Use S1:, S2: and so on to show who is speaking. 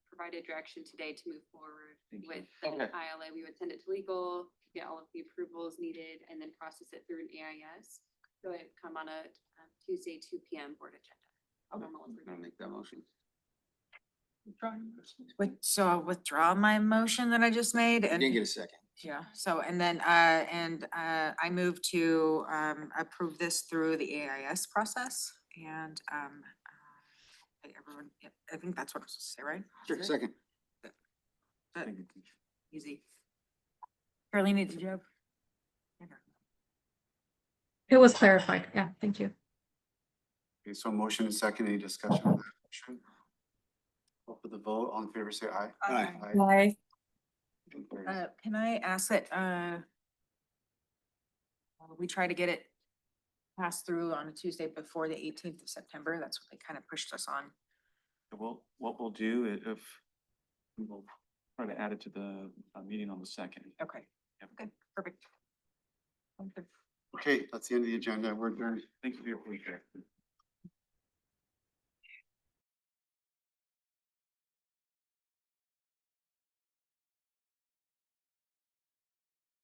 S1: provided direction today to move forward
S2: Thank you.
S1: with
S3: Okay.
S1: the um, ILA. We would send it to legal, get all of the approvals needed, and then process it through an E AIS. So it would come on a um, Tuesday, two P M board agenda. Normal
S3: I'm gonna
S1: approval.
S3: make that motion.
S4: Wait, so I'll withdraw my motion that I just made
S3: You Didn't
S4: and,
S3: get a second.
S4: yeah, so, and then, uh, and, uh, I move to, um, approve this through the AIS process and, um, uh, I- everyone, yep, I think that's what I was supposed to say, right?
S3: Sure,
S4: Is it?
S3: second.
S4: That- Easy. Carolina, did you have? Okay.
S5: It was clarified. Yeah, thank you.
S6: Okay, so motion and second, any discussion on that motion? Open the vote, all in favor, say aye.
S3: Aye.
S5: Bye.
S6: Motion carries.
S4: Uh, can I ask that, uh, uh, we try to get it passed through on a Tuesday before the eighteenth of September? That's what they kind of pushed us on.
S2: Well, what we'll do i- if, we will try to add it to the uh, meeting on the second.
S4: Okay.
S2: Yep.
S4: Okay, perfect. Okay.
S6: Okay, that's the end of the agenda, we're adjourned.
S2: Thank you for your feedback.